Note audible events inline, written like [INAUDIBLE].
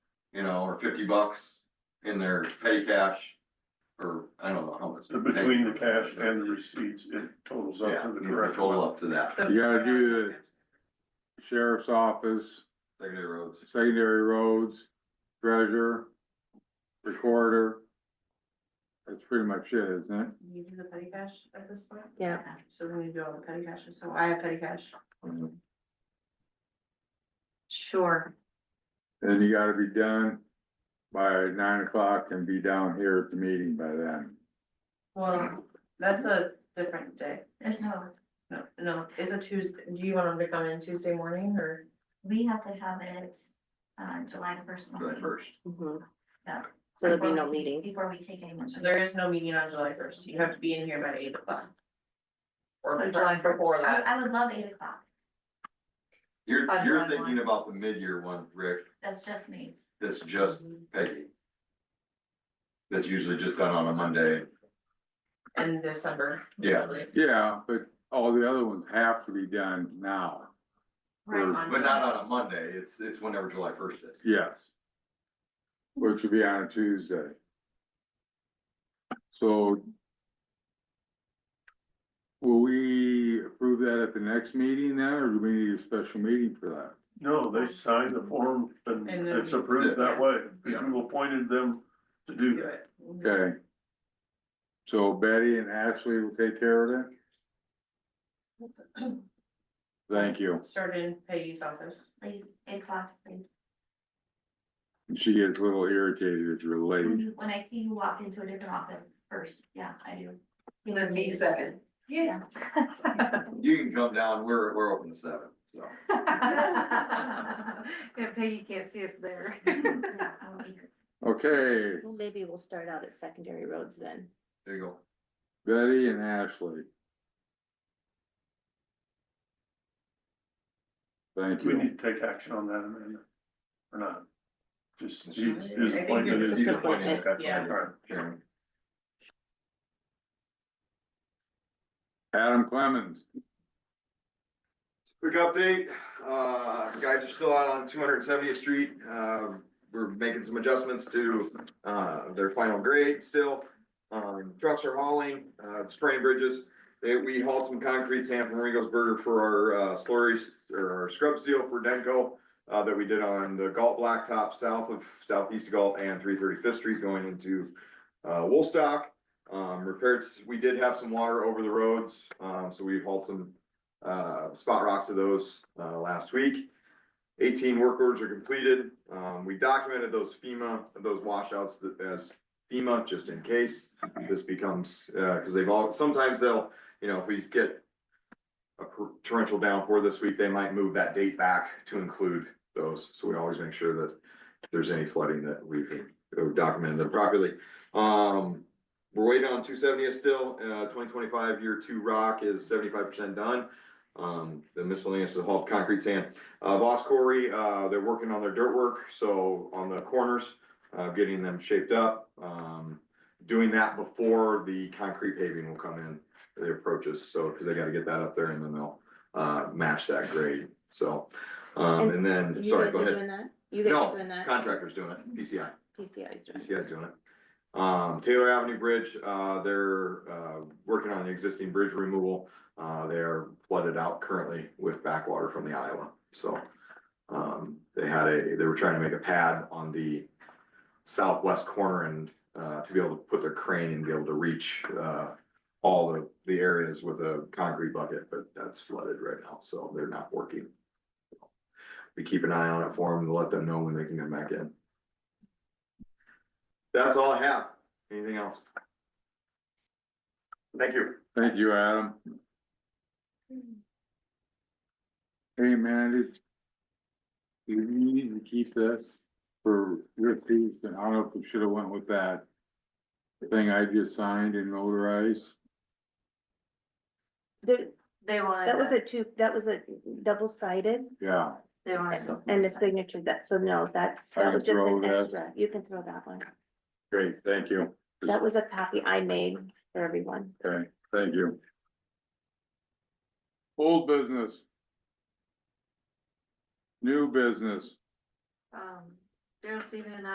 you know, or fifty bucks in their petty cash, or I don't know how much. So between the cash and the receipts, it totals up Yeah, to the you correct. total up to that, So- You gotta do the sheriff's office, secondary roads, secondary roads, treasurer, recorder. That's pretty much it, isn't it? You do the petty cash at this point? Yeah. So we need to do all the petty cash, so I have petty cash. Sure, And you gotta be done by nine o'clock and be down here at the meeting by then. Well, that's a different day. there's no, No, no, it's a Tuesday. Do you want them to come in Tuesday morning or? we have to have it, uh, July first. July first. Yeah. So there'll be no meeting. Before we take any more. So there is no meeting on July first. You have to be in here by eight o'clock. Or On July before I, that. I would love eight o'clock, You're, On you're July thinking one. about the mid-year one, Rick, that's just me, that's just Peggy. That's usually just done on a Monday, In December. Yeah. usually. Yeah, but all the other ones have to be done now. right, but not on a Monday, it's, it's whenever July first is. Yes. Which would be on a Tuesday. So. Will we approve that at the next meeting then, or do we need a special meeting for that? No, they sign the form and And then- it's approved that way, because you appointed them to do Do that. it. Okay. So Betty and Ashley will take care of that? Thank you. Start in Peggy's office. please, eight o'clock, please. She gets a little irritated if you're late. When I see you walk into a different office first, yeah, I do. then me second. [LAUGHS] Yeah. [LAUGHS] You can come down, we're, we're open to seven, so. If Peggy can't see us [LAUGHS] there. I will be here. Okay, Well, maybe we'll start out at secondary roads then. There you go. Betty and Ashley. Thank We you. need to take action on that amendment, or not? Just, I his think it's his appointment is. just appointment, Okay, yeah. all right. Karen. Adam Clemens, Quick update, uh, guys are still out on two hundred and seventieth street, uh, we're making some adjustments to, uh, their final grade still. Um, trucks are hauling, uh, spraying bridges, They- we hauled some concrete sand from Ringo's Burger for our, uh, slurry, or our scrub seal for Denko. Uh, that we did on the Galt Blacktop south of southeast of Galt and three thirty-fifth street going into, uh, Woolstock. Um, repairs, we did have some water over the roads, um, so we hauled some uh, spot rock to those, uh, last week. Eighteen work orders are completed. Um, we documented those FEMA, those washouts that- as FEMA, just in case this becomes, uh, cause they've all, sometimes they'll, you know, if we get a per- torrential downpour this week, they might move that date back to include those. So we always make sure that if there's any flooding that we've uh, documented them properly. Um, we're waiting on two seventy still, uh, twenty twenty-five year two rock is seventy-five percent done. Um, the miscellaneous is hauled concrete sand. Uh, Boss Corey, uh, they're working on their dirt work, so on the corners, uh, getting them shaped up. Um, doing that before the concrete paving will come in, the approaches, so, cause they gotta get that up there and then they'll, uh, match that grade, so. Um, and then, You sorry, guys go are ahead. doing that? You guys No, are doing that? contractor's doing it, PCI. PCI's doing it. PCI's doing it. Um, Taylor Avenue Bridge, uh, they're, uh, working on the existing bridge removal. Uh, they are flooded out currently with backwater from the Iowa, so. Um, they had a, they were trying to make a pad on the southwest corner and, uh, to be able to put their crane and be able to reach, uh, all the, the areas with a concrete bucket, but that's flooded right now, so they're not working. We keep an eye on it for them, to let them know when they can come back in. That's all I have. Anything else? Thank you. thank you, Adam. Hey, Mandy. Do you need to keep this for your piece, and I don't know if we should have went with that thing I just signed and notarized? There- They wanted. That was it. a two, that was a double sided Yeah, They wanted. it. and the signature that, so no, that's, I that was can just throw an that. extra. You can throw that one. great, thank you. That was a copy I made for everyone. Okay, thank you. Old business. New business. Um, Daryl Stephen and I